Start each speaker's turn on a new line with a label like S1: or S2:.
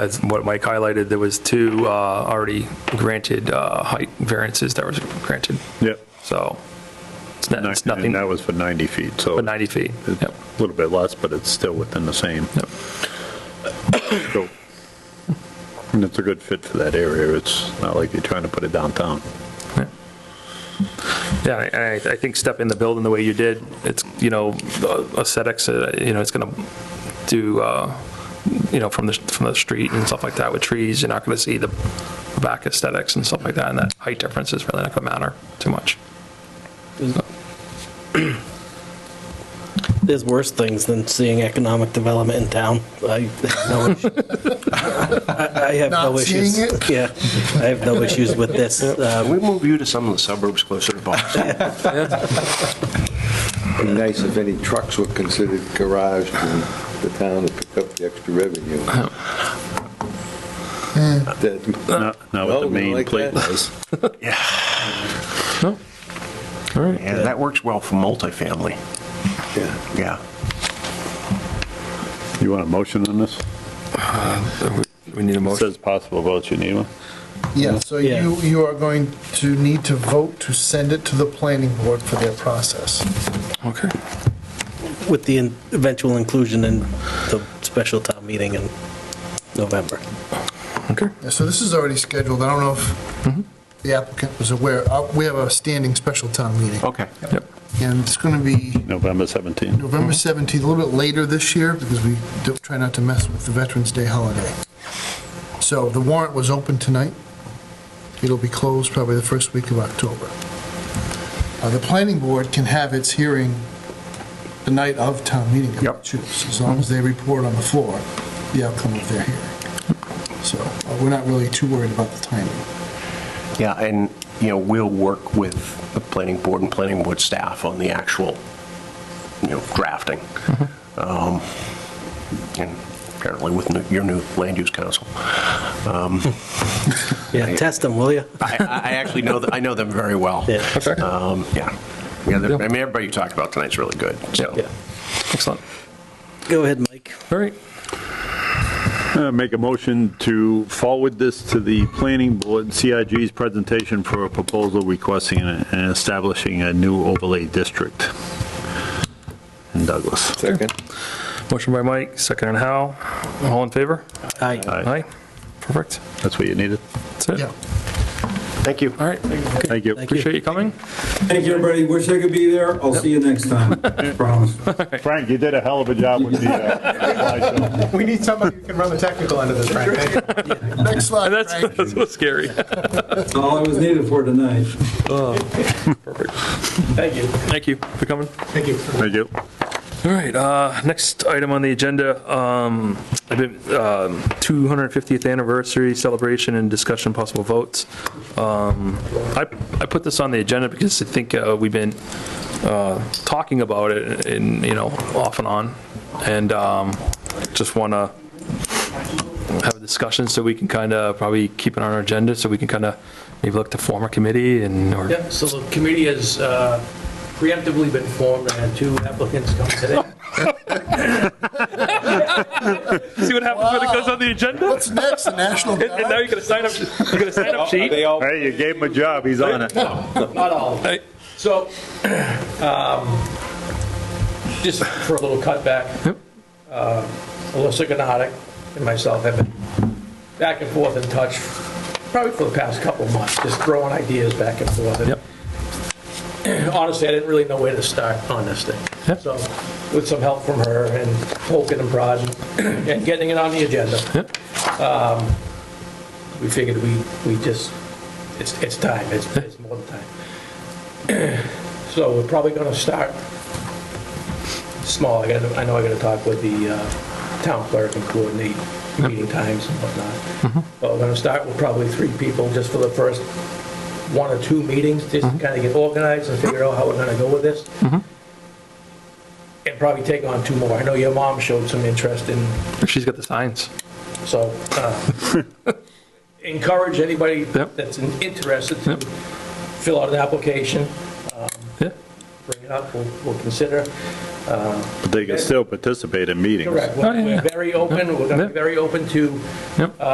S1: That's what Mike highlighted. There was two uh, already granted uh, height variances that were granted.
S2: Yep.
S1: So it's not- it's
S2: And
S1: nothing
S2: that was for 90 feet, so.
S1: but 90 feet.
S2: it's
S1: Yep.
S2: A little bit less, but it's still within the same.
S1: Yep.
S2: scope. And it's a good fit for that area. It's not like you're trying to put it downtown.
S1: Yeah, I, I- I think step in the building the way you did, it's, you know, the aesthetics, uh, you know, it's going to do, uh, you know, from the, from the street and stuff like that with trees, you're not going to see the back aesthetics and stuff like that, and that height difference is really not going to matter too much.
S3: There's worse things than seeing economic development in town. I have no issues. I I have no
S4: Not seeing
S3: issues.
S4: it?
S3: Yeah, I have no issues with this.
S5: Can Uh, we
S3: Um,
S5: move you to some of the suburbs closer to Boston?
S6: It'd be nice if any trucks were considered garaged in the town to pick up the extra revenue.
S1: Uh,
S6: That-
S2: Not not what
S6: No,
S2: the
S6: we
S2: main
S6: like
S2: plate
S6: that.
S2: was.
S1: All right.
S5: Yeah, that works well for multifamily,
S6: yeah.
S5: yeah.
S2: You want a motion on this?
S1: We need a
S2: It
S1: motion.
S2: says possible votes, you need one?
S4: Yeah, so
S3: Yeah.
S4: you, you are going to need to vote to send it to the planning board for their process.
S1: Okay.
S3: With the in- eventual inclusion in the special town meeting in November.
S1: Okay.
S4: Yeah, So this is already scheduled, I don't know if the applicant was aware, Uh, we have a standing special town meeting.
S5: Okay.
S1: Yep.
S4: And it's going to be
S2: November 17th.
S4: November 17th, a little bit later this year, because we don't- try not to mess with the Veterans Day holiday. So the warrant was open tonight. It'll be closed probably the first week of October. Uh, The planning board can have its hearing the night of town meeting if
S5: Yep.
S4: they choose, as long as they report on the floor the outcome of their hearing. So uh, we're not really too worried about the timing.
S5: Yeah, and, you know, we'll work with the planning board and planning board staff on the actual, you know, drafting. Um, And apparently with new- your new land use council. Um,
S3: Yeah, test them, will you?
S5: I I actually know, th- I know them very well.
S3: Yeah.
S1: Okay.
S5: Um, Yeah. Yeah, they're- I mean, everybody you talked about tonight's really good, so.
S3: Yeah.
S1: Excellent.
S3: Go ahead, Mike.
S1: All right.
S2: Uh, Make a motion to forward this to the planning board, CIG's presentation for a proposal requesting and establishing a new overlay district in Douglas.
S6: Second?
S1: Motion by Mike, second and Hal. All in favor?
S3: Aye.
S2: Aye.
S1: Perfect.
S2: That's what you needed.
S1: That's it.
S4: Yeah.
S5: Thank you.
S1: All right.
S2: Thank you.
S3: Thank you.
S1: Appreciate you coming.
S7: Thank you, everybody. Wish I could be there. I'll see you next time. Promise.
S2: Frank, you did a hell of a job with the, uh,
S4: We need somebody who can run the technical end of this, Frank. Next slide,
S1: That's,
S4: Frank.
S1: that's what's scary.
S7: That's All I was needed for tonight.
S1: Perfect. Thank you. Thank you for coming.
S4: Thank you.
S2: thank you.
S1: All right, uh, next item on the agenda, um, I've been, um, 250th anniversary celebration and discussion possible votes. Um, I, I put this on the agenda because I think uh, we've been uh, talking about it in, you know, off and on, and um, just want to have a discussion so we can kind of probably keep it on our agenda, so we can kind of maybe look to form a committee and, or,
S8: Yep, so the committee has uh, preemptively been formed, and had two applicants come today.
S1: see what happens when it goes on the agenda?
S4: What's next, the National
S1: And and now
S4: Guard?
S1: you're going to sign up, you're going to sign up sheet?
S2: Hey, you gave him a job, he's on it.
S8: Not all of them.
S1: Hey.
S8: So, um, just for a little cutback, uh, Alyssa Gnotik and myself have been back and forth in touch probably for the past couple of months, just throwing ideas back and forth.
S1: Yep.
S8: honestly, I didn't really know where to start on this thing.
S1: Yep.
S8: So with some help from her and poking and prodding and getting it on the agenda. um, We figured we, we just, it's, it's time, it's, it's more than time. So we're probably gonna start small. I gotta, I know I gotta talk with the uh, town clerk and coordinate meeting times and
S1: Mm-hmm.
S8: whatnot. But we're gonna start with probably three people just for the first one or two meetings, just
S1: Mm-hmm.
S8: to kind of get organized and figure out how we're gonna go with this. And probably take on two more. I know your mom showed some interest in,
S1: She's got the signs.
S8: so uh, encourage anybody
S1: Yep.
S8: that's interested to
S1: Yep.
S8: fill out an application.
S1: Yeah.
S8: bring it up, we'll we'll consider. Uh,
S2: But they can still participate in meetings.
S8: Correct,
S1: Oh, yeah.
S8: we're very open, we're going to be very open to
S1: Yep.